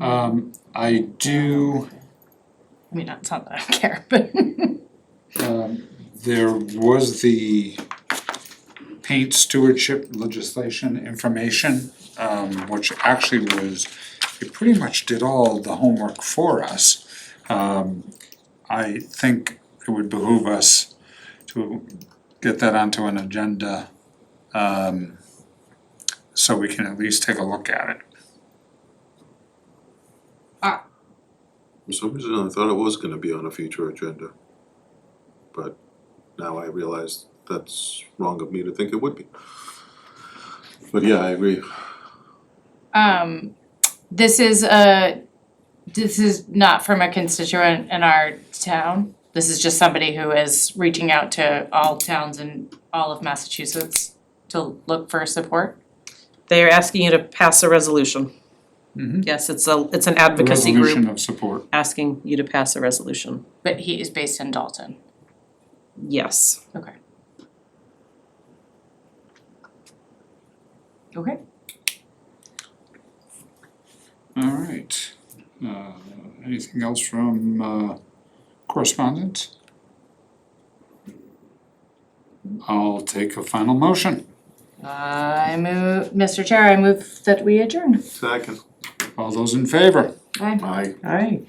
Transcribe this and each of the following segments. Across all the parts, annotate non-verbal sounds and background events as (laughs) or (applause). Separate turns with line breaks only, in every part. Um, I do,
I mean, it's not that (laughs) I don't care, but
um, there was the paint stewardship legislation information, um, which actually was, it pretty much did all the homework for us. Um, I think it would behoove us to get that onto an agenda, um, so we can at least take a look at it.
For some reason, I thought it was gonna be on a future agenda. But now I realize that's wrong of me to think it would be. But yeah, I agree.
um, this is a, this is not from a constituent in our town. This is just somebody who is reaching out to all towns in all of Massachusetts to look for support.
They are asking you to pass a resolution.
Mhm.
Yes, it's a, it's an advocacy
Resolution
group
of support.
asking you to pass a resolution.
But he is based in Dalton.
Yes.
Okay. Okay.
Alright, uh, anything else from, uh, correspondence? I'll take a final motion.
I move, Mr. Chair, I move that we adjourn.
Second.
All those in favor?
Aye.
Aye.
Aye.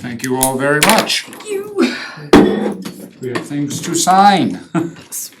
Thank you all very much.
You.
We have things to sign. (laughs)